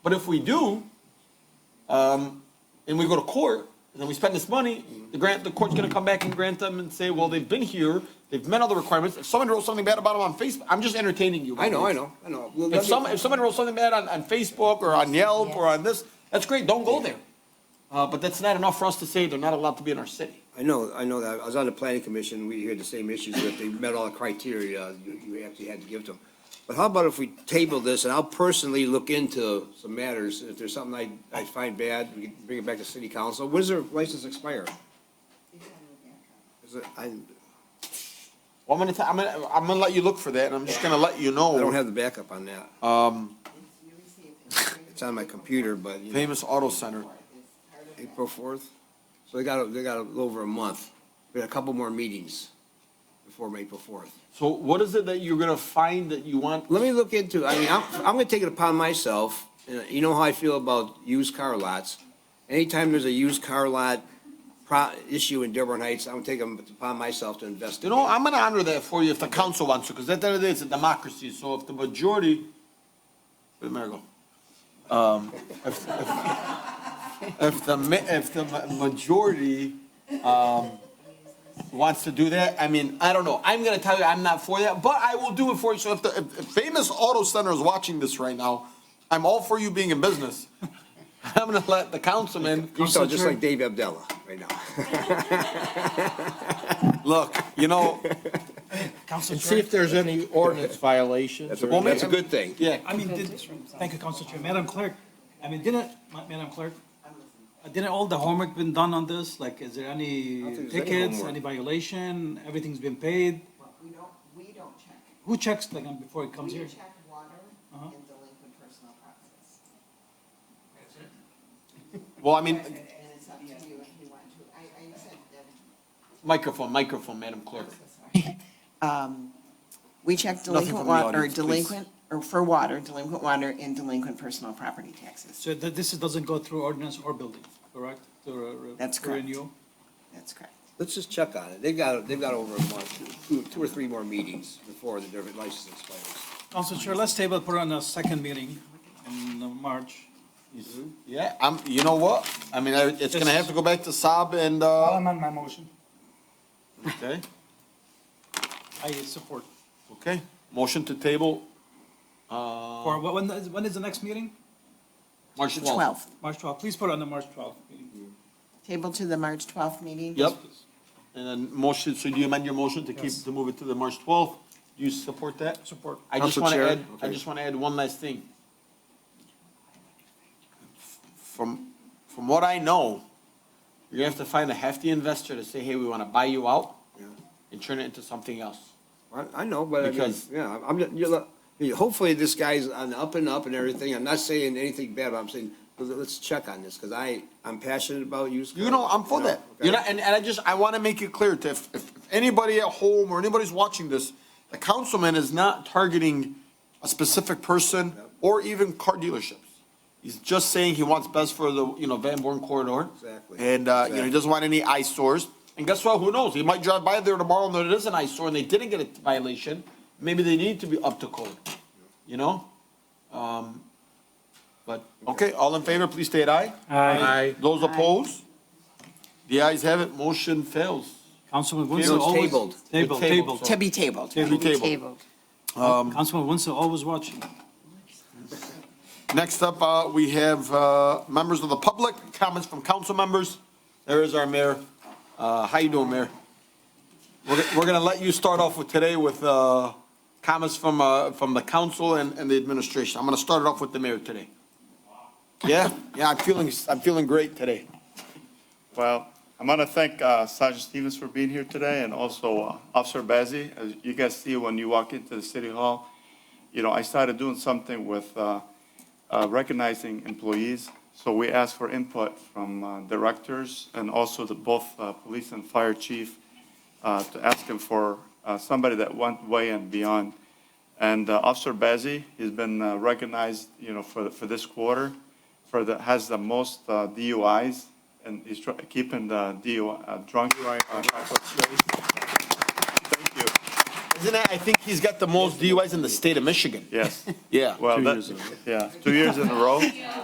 But if we do, um, and we go to court, and then we spend this money, the grant, the court's gonna come back and grant them and say, well, they've been here, they've met all the requirements. If someone wrote something bad about them on Facebook, I'm just entertaining you. I know, I know, I know. Well, let If me- some, if someone wrote something bad on, on Facebook or on Yelp or on this, that's great, don't go there. Uh, but that's not enough for us to say they're not allowed to be in our city. I know, I know that. I was on the planning commission, we heard the same issues, that they met all the criteria, you, you actually had to give to them. But how about if we table this, and I'll personally look into some matters, if there's something I, I find bad, we can bring it back to city council, when does their license expire? Is it, I, I Well, I'm gonna, ta- I'm gonna, I'm gonna let you look for that, and I'm just gonna let you know. don't have the backup on that, it's on my computer, but, you know, Famous Auto Center. April fourth, so they got, a- they got a little over a month, we got a couple more meetings before April fourth. So what is it that you're gonna find that you want Let me look into, I mean, I'm, I'm gonna take it upon myself, uh, you know how I feel about used car lots. Anytime there's a used car lot pro, issue in Dearborn Heights, I'm gonna take it upon myself to You investigate. know, I'm gonna honor that for you if the council wants to, because at the end of the day, it's a democracy, so if the majority, where'd Mayor go? Um, if, if, if the, ma- if the ma- majority, um, wants to do that, I mean, I don't know, I'm gonna tell you, I'm not for that, but I will do it for you, so if the, if if Famous Auto Center is watching this right now, I'm all for you being in business. I'm gonna let the councilman. You sound just like Dave Abdella right now. Look, you know, And see if there's any ordinance violations That's a, or, that's a good thing. yeah, I mean, did, thank you, Council Chair. Madam Clerk, I mean, didn't, Ma- Madam Clerk, uh, didn't all the homework been done on this? Like, is there don't any think there's any tickets, homework. any violation? Everything's been paid? We don't, we don't check. Who checks like um, before it comes We here? check water and delinquent personal properties. well, I mean, And it's up to you if you want to. I, I said that, Microphone, microphone, Madam Clerk. I'm so sorry. Um, We check Nothing from delinquent the water, or audience, please. delinquent, or for water, delinquent water and delinquent personal property taxes. So that this doesn't go through ordinance or building, correct? To re- re- That's to correct. renew? That's correct. Let's just check on it. They've got, they've got over a month, two, two or three more meetings before the Dearborn license expires. Council Chair, let's table put on a second meeting in uh, March. Mm-hmm. Yeah, I'm, you know what? I mean, I- it's gonna have to go back to Saab and, Uh-huh. I'll uh, amend my motion. okay, I support. okay. Motion to table, Or wh- when, is- when is the next meeting? March twelfth. Twelve, March 12th. Please put on the March 12th meeting. table to the March twelfth meeting? Yep. And then motion, so do you amend your motion to keep, Yes. to move it to the March twelfth? Do you support that? Support. I just Council wanna Chair? add, I Okay. just wanna add one last thing. From, from what I know, you're gonna have to find a hefty investor to say, hey, we wanna buy you out Yeah. and turn it into something else. I, I know, but I mean, Because- yeah, I'm, you look, hopefully this guy's on the up and up and everything. I'm not saying anything bad, but I'm saying, let's- let's check on this, because I, I'm passionate about used. You know, I'm for cars, that. okay? You know, and, and I just, I want to make it clear to, if, if anybody at home or anybody's watching this, the councilman is not targeting a specific person or even car dealerships. He's just saying he wants best for the, you know, Van Born corridor. Exactly. And, uh, you know, he Exactly. doesn't want any eyesores. And guess what? Who knows? He might drive by there tomorrow and it is an eyesore and they didn't get a violation. Maybe they need to be up to code, you know? Um, but, okay, all in favor, please state aye. Aye. Those opposed? The ayes have it, motion fails. Councilman It Wenzel was always. tabled. Table, Tabled, table. To be tabled. Table, table. Table. Councilman Wenzel always watching. Next up, uh, we have, uh, members of the public, comments from council members. There is our mayor. Uh, how you doing, Mayor? We're, go- we're gonna let you start off with today with, uh, comments from, uh, from the council and, and the administration. I'm gonna start it off with the mayor today. Yeah, yeah, I'm feeling, I'm feeling great today. Well, I'm going to thank uh, Sergeant Stevens for being here today and also uh, Officer Bazey. As you guys see, when you walk into the city hall, you know, I started doing something with uh, uh, recognizing employees. So we asked for input from uh, directors and also the both uh, police and fire chief uh, to ask him for uh, somebody that went way and beyond. And uh, Officer Bazey, he's been uh, recognized, you know, for, for this quarter, for the, has the most uh, DUIs, and he's try- keeping the DUI, uh, drunk. Right. Thank you. Isn't that, I think he's got the most DUIs in the state of Michigan. Yes. Yeah. Well, two that, years ago. yeah, two years in a row.